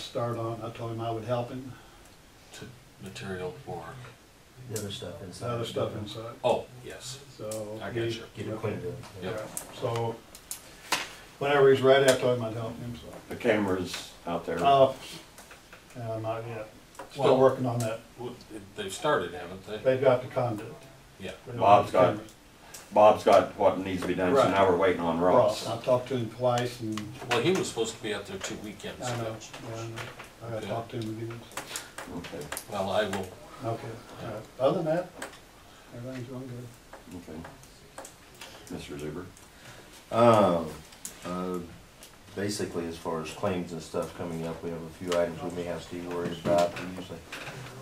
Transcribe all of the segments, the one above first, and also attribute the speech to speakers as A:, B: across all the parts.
A: start on, I told him I would help him,
B: material for,
C: The other stuff inside.
A: the other stuff inside,
B: oh, yes,
A: so.
B: I got you.
C: Get it cleaned up.
B: Yep.
A: Yeah, so, whenever he's ready, I told him I'd help him, so.
D: The cameras out there.
A: Uh, uh, not yet, still
B: Well-
A: working on that,
B: Well, They've started, haven't they?
A: they've got the conduit.
B: Yeah.
A: They don't
D: Bob's
A: have
D: got
A: cameras.
D: Bob's got what needs to be done, so
A: Right.
D: now we're waiting on
A: Ross,
D: Ross.
A: I talked to him twice and
B: Well, he was supposed to be out there two weekends
A: I know,
B: ago.
A: yeah, I know. I gotta
B: Okay.
A: talk to him again, so.
D: Okay,
B: Well, I will,
A: Okay, all right. Other than that, everything's going good.
D: okay. Mr. Zuber?
C: Um, uh, basically, as far as claims and stuff coming up, we have a few items we may have to be worried about. We usually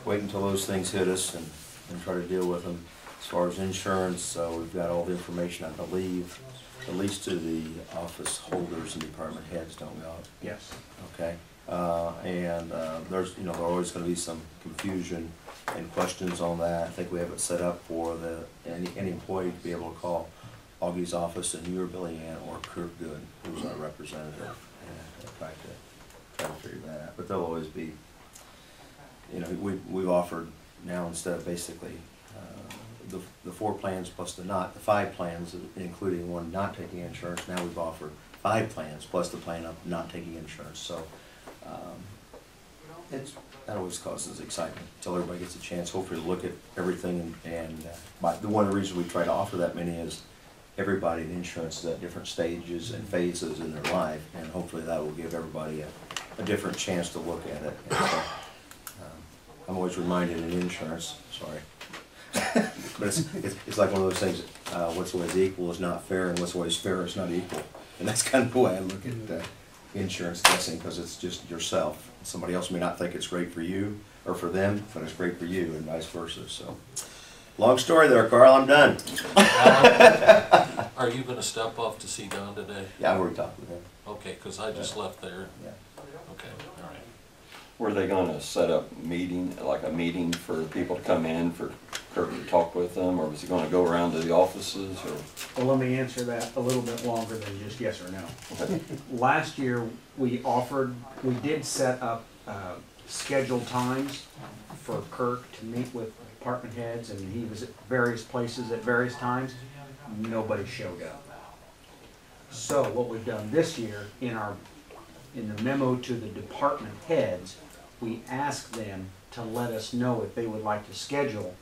C: wait until those things hit us and, and try to deal with them. As far as insurance, uh, we've got all the information, I believe, at least to the office holders and department heads, don't we, all?
A: Yes.
C: okay? Uh, and, uh, there's, you know, there always gonna be some confusion and questions on that. I think we have it set up for the, any, any employee to be able to call Augie's office and you or Billy Ann or Kurt Good, who's our representative. And I tried to, try to figure that out, but there'll always be, you know, we, we've offered now instead of basically, uh, the, the four plans plus the not, the five plans, including one not taking insurance, now we've offered five plans plus the plan of not taking insurance, so, um, it's, that always causes excitement, until everybody gets a chance, hopefully to look at everything, and, uh, but the one reason we try to offer that many is everybody in insurance is at different stages and phases in their life, and hopefully that will give everybody a, a different chance to look at it. And so, um, I'm always reminded in insurance, sorry, but it's, it's, it's like one of those things, uh, what's always equal is not fair, and what's always fair is not equal. And that's kind of the way I look at, uh, insurance testing, because it's just yourself. Somebody else may not think it's great for you or for them, but it's great for you and vice versa, so. Long story there, Carl, I'm done.
B: Alan, are you gonna step off to see Don today?
C: Yeah, I've already talked with him,
B: Okay, cause I just left there,
C: yeah.
B: okay, all right.
D: Were they gonna set up meeting, like a meeting for people to come in for Kirk to talk with them, or was he gonna go around to the offices, or?
E: Well, let me answer that a little bit longer than just yes or no.
D: okay,
E: Last year, we offered, we did set up uh, scheduled times for Kirk to meet with department heads, and he was at various places at various times. Nobody showed up. So what we've done this year, in our, in the memo to the department heads, we asked them to let us know if they would like to schedule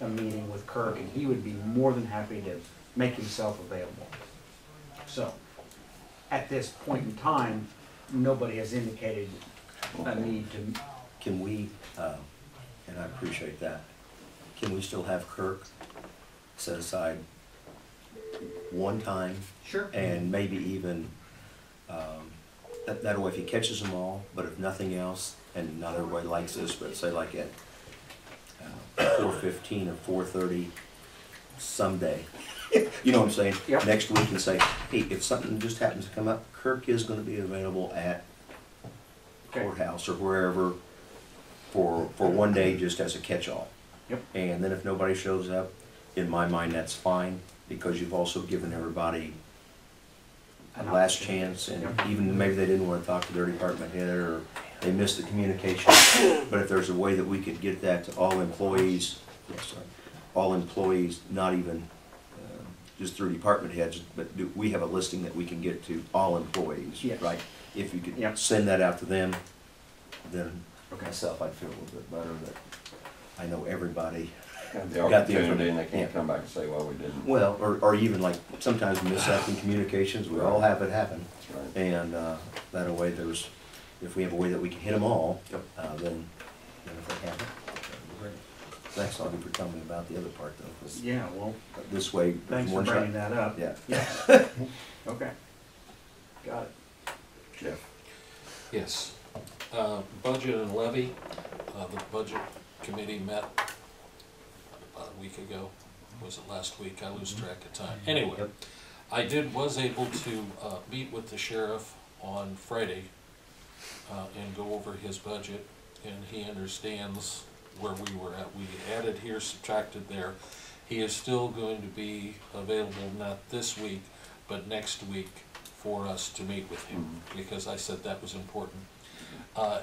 E: a meeting with Kirk, and he would be more than happy to make himself available. So, at this point in time, nobody has indicated a need to,
C: Can we, uh, and I appreciate that, can we still have Kirk set aside one time
E: sure,
C: and maybe even, um, that, that way if he catches them all, but if nothing else, and not everybody likes this, but say like at uh, four fifteen or four thirty someday. You know what I'm saying?
E: Yep.
C: Next week and say, hey, if something just happens to come up, Kirk is gonna be available at
E: Okay.
C: courthouse or wherever for, for one day just as a catch-all.
E: Yep.
C: And then if nobody shows up, in my mind, that's fine, because you've also given everybody a
E: An
C: last
E: opportunity.
C: chance, and
E: Yep.
C: even maybe they didn't wanna talk to their department head, or they missed the communication. But if there's a way that we could get that to all employees, yes, sorry, all employees, not even uh, just through department heads, but do, we have a listing that we can get to all employees,
E: Yes.
C: right? If you could
E: Yep.
C: send that out to them, then
E: Okay.
C: myself, I'd feel a little bit better that I know everybody.
D: Had the
C: Got the
D: opportunity,
C: information.
D: and they can't come back and say, well, we didn't.
C: Well, or, or even like, sometimes we miss out in communications, we all have it happen.
D: Right.
C: And uh, that a way there's, if we have a way that we can hit them all,
D: Yep.
C: uh, then, then if they have it, that'd be great. Thanks, Augie, for telling me about the other part though, 'cause
E: Yeah, well,
C: this way.
E: thanks for
C: one shot-
E: bringing that up.
C: Yeah.
E: Yeah. Okay. Got it.
D: Jeff?
B: Yes, uh, budget and levy, uh, the budget committee met about a week ago, was it last week? I lose track of time. Anyway,
C: Yep.
B: I did, was able to, uh, meet with the sheriff on Friday, uh, and go over his budget, and he understands where we were at. We added here, subtracted there. He is still going to be available, not this week, but next week for us to meet with him, because I said that was important. Uh,